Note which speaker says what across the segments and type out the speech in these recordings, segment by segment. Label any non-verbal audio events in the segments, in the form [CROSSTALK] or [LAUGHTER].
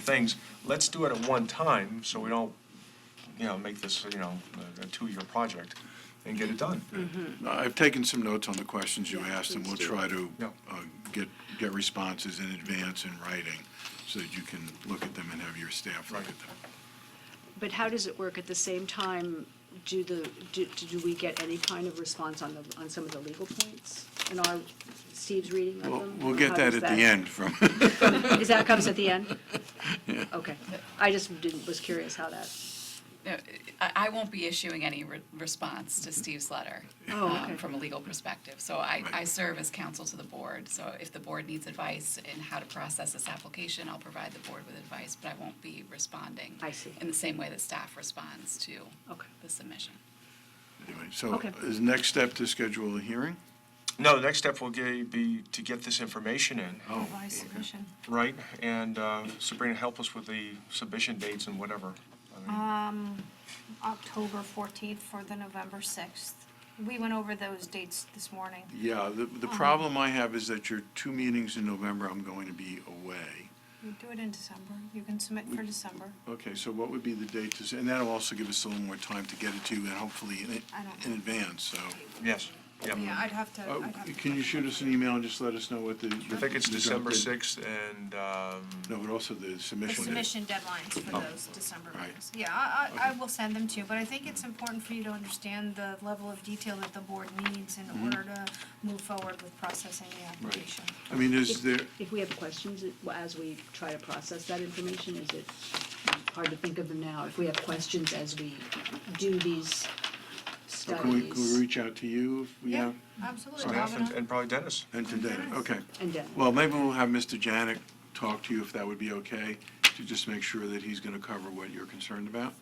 Speaker 1: things, let's do it at one time, so we don't, you know, make this, you know, a- a two-year project and get it done.
Speaker 2: I've taken some notes on the questions you asked, and we'll try to
Speaker 1: Yeah.
Speaker 2: uh, get, get responses in advance in writing, so that you can look at them and have your staff look at
Speaker 1: Right.
Speaker 2: them.
Speaker 3: But how does it work? At the same time, do the, do, do we get any kind of response on the, on some of the legal points? In our, Steve's reading of
Speaker 2: We'll,
Speaker 3: them?
Speaker 2: we'll
Speaker 3: Or
Speaker 2: get
Speaker 3: how
Speaker 2: that
Speaker 3: does
Speaker 2: at the end from, [LAUGHS]
Speaker 3: Is that comes at the end? Okay. I just didn't, was curious how that,
Speaker 4: No, I I won't be issuing any re- response to Steve's letter
Speaker 3: Oh,
Speaker 4: um,
Speaker 3: okay.
Speaker 4: from a legal perspective. So I I
Speaker 2: Right.
Speaker 4: serve as counsel to the board, so if the board needs advice in how to process this application, I'll provide the board with advice, but I won't be responding.
Speaker 3: I see.
Speaker 4: In the same way that staff responds to
Speaker 3: Okay.
Speaker 4: the submission.
Speaker 2: anyway, so
Speaker 3: Okay.
Speaker 2: is next step to schedule a hearing?
Speaker 1: No, the next step will ge- be to get this information in,
Speaker 2: Oh,
Speaker 5: submission.
Speaker 1: right? And uh, Sabrina, help us with the submission dates and whatever. I mean,
Speaker 5: Um, October 14th for the November 6th. We went over those dates this morning.
Speaker 2: yeah, the, the problem I have is that your two meetings in November, I'm going to be away.
Speaker 5: You do it in December. You can submit for December.
Speaker 2: Okay, so what would be the date to, s- and that'll also give us a little more time to get it to you, and hopefully in,
Speaker 5: I don't-
Speaker 2: in advance, so.
Speaker 1: Yes,
Speaker 6: Yeah,
Speaker 1: yeah.
Speaker 6: I'd have to,
Speaker 2: Oh,
Speaker 6: I'd have to.
Speaker 2: Can you shoot us an email and just let us know what the?
Speaker 1: I think it's December 6th and, um,
Speaker 2: No, but also the
Speaker 6: The
Speaker 2: submission date.
Speaker 6: submission deadlines for
Speaker 2: Oh.
Speaker 6: those December
Speaker 2: Right.
Speaker 6: meetings. Yeah, I, I, I will send them to you, but I think it's important for you to understand the level of detail that the board needs in
Speaker 2: Mm-hmm.
Speaker 6: order to move forward with processing the application.
Speaker 2: I mean, is there,
Speaker 3: if we have questions, it- well, as we try to process that information, is it hard to think of them now? If we have questions as we do these
Speaker 2: can we, can we
Speaker 3: studies
Speaker 2: reach out to you if we
Speaker 6: Yeah,
Speaker 2: have?
Speaker 6: absolutely.
Speaker 1: staff
Speaker 6: Robin,
Speaker 1: and- and probably Dennis.
Speaker 2: And to Dana, okay.
Speaker 3: and then.
Speaker 2: Well, maybe we'll have Mr. Janik talk to you if that would be okay, to just make sure that he's gonna cover what you're concerned about.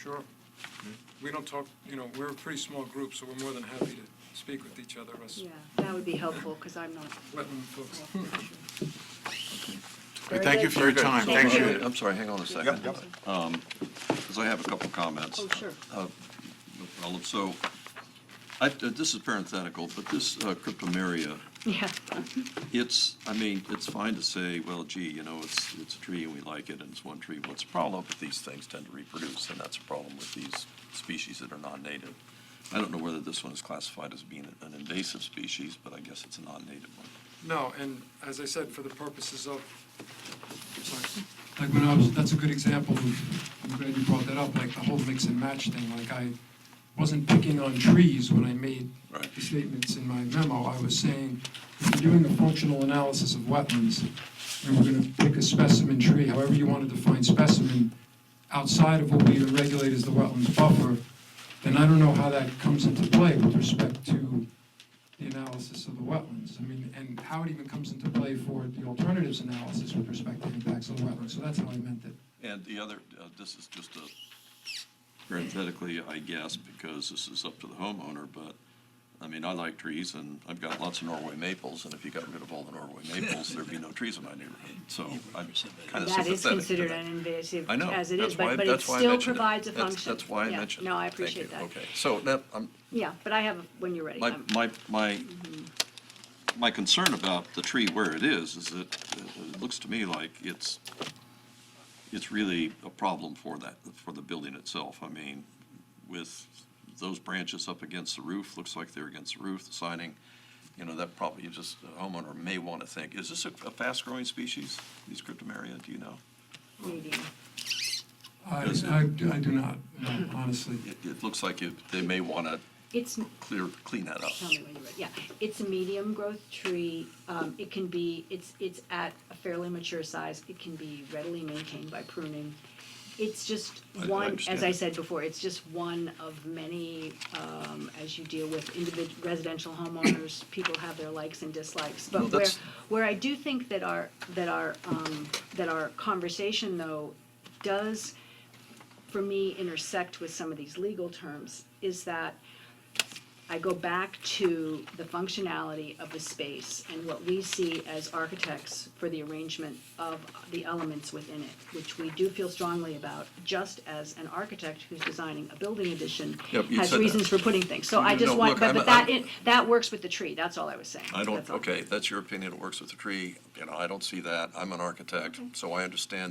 Speaker 7: Sure. We don't talk, you know, we're a pretty small group, so we're more than happy to speak with each other, us
Speaker 3: Yeah, that would be helpful, because I'm not.
Speaker 7: wetland folks.
Speaker 3: Very
Speaker 2: Thank you
Speaker 3: good.
Speaker 2: for your
Speaker 1: Very good.
Speaker 2: time,
Speaker 1: Thank
Speaker 2: appreciate
Speaker 3: you.
Speaker 2: it.
Speaker 8: I'm sorry, hang on a second.
Speaker 1: Yep, yep.
Speaker 8: Because I have a couple of comments.
Speaker 3: Oh, sure.
Speaker 8: Uh, well, So, I, uh, this is parenthetical, but this uh, cryptomeria,
Speaker 3: Yeah,
Speaker 8: it's, I mean, it's fine to say, well, gee, you know, it's, it's a tree and we like it and it's one tree. What's the problem? But these things tend to reproduce and that's a problem with these species that are non-native. I don't know whether this one is classified as being an invasive species, but I guess it's a non-native one.
Speaker 7: No, and as I said, for the purposes of, sorry, like when I was, that's a good example, of- I'm glad you brought that up, like the whole mix and match thing, like I wasn't picking on trees when I made
Speaker 8: Right.
Speaker 7: the statements in my memo, I was saying, if you're doing a functional analysis of wetlands, and we're gonna pick a specimen tree, however you want to define specimen, outside of what we would regulate as the wetlands buffer, then I don't know how that comes into play with respect to the analysis of the wetlands. I mean, and how it even comes into play for the alternatives analysis with respect to impacts of the wetlands. So that's how I meant it.
Speaker 8: And the other, uh, this is just a, parenthetically, I guess, because this is up to the homeowner, but, I mean, I like trees, and I've got lots of Norway maples, and if you got rid of all the Norway maples, there'd be no trees in my neighborhood, so I'm kind of sympathetic
Speaker 3: that is
Speaker 8: to
Speaker 3: considered
Speaker 8: that.
Speaker 3: an invasive
Speaker 8: I know,
Speaker 3: as it
Speaker 8: that's
Speaker 3: is,
Speaker 8: why,
Speaker 3: but, but it
Speaker 8: that's why I
Speaker 3: still
Speaker 8: mentioned it.
Speaker 3: provides a
Speaker 8: That's-
Speaker 3: function.
Speaker 8: That's why I
Speaker 3: Yeah,
Speaker 8: mentioned it.
Speaker 3: No, I
Speaker 8: Thank
Speaker 3: appreciate
Speaker 8: you.
Speaker 3: that.
Speaker 8: Okay, so that, I'm,
Speaker 3: Yeah, but I have, when you're ready.
Speaker 8: my,
Speaker 3: I'm-
Speaker 8: my, my, my concern about the tree where it is, is that uh, it looks to me like it's, it's really a problem for that, for the building itself. I mean, with those branches up against the roof, looks like they're against the roof, the siding, you know, that probably, you just, the homeowner may want to think, is this a a fast-growing species, these cryptomeria, do you know?
Speaker 3: Medium.
Speaker 7: I,
Speaker 8: Yes.
Speaker 7: I do I do not, no, honestly.
Speaker 8: It, it looks like it, they may want to
Speaker 3: It's,
Speaker 8: clear, clean that up.
Speaker 3: tell me when you're ready, yeah. It's a medium growth tree. Um, it can be, it's, it's at a fairly mature size. It can be readily maintained by pruning. It's just
Speaker 8: I- I
Speaker 3: one, as I
Speaker 8: understand.
Speaker 3: said before, it's just one of many, um, as you deal with individ- residential homeowners, people have their likes and dislikes.
Speaker 8: Well,
Speaker 3: But where,
Speaker 8: that's-
Speaker 3: where I do think that our, that our, um, that our conversation though does, for me, intersect with some of these legal terms is that I go back to the functionality of the space and what we see as architects for the arrangement of the elements within it, which we do feel strongly about, just as an architect who's designing a building addition
Speaker 8: Yep, you
Speaker 3: has
Speaker 8: said that.
Speaker 3: reasons for putting things. So I
Speaker 8: No,
Speaker 3: just
Speaker 8: no,
Speaker 3: want,
Speaker 8: look,
Speaker 3: but
Speaker 8: I'm-
Speaker 3: but that,
Speaker 8: I'm-
Speaker 3: it- that works with the tree, that's all I was saying.
Speaker 8: I don't,
Speaker 3: That's all. Mm-hmm.
Speaker 8: okay, that's your opinion, it works with the tree, you know, I don't see that, I'm an architect, so I understand the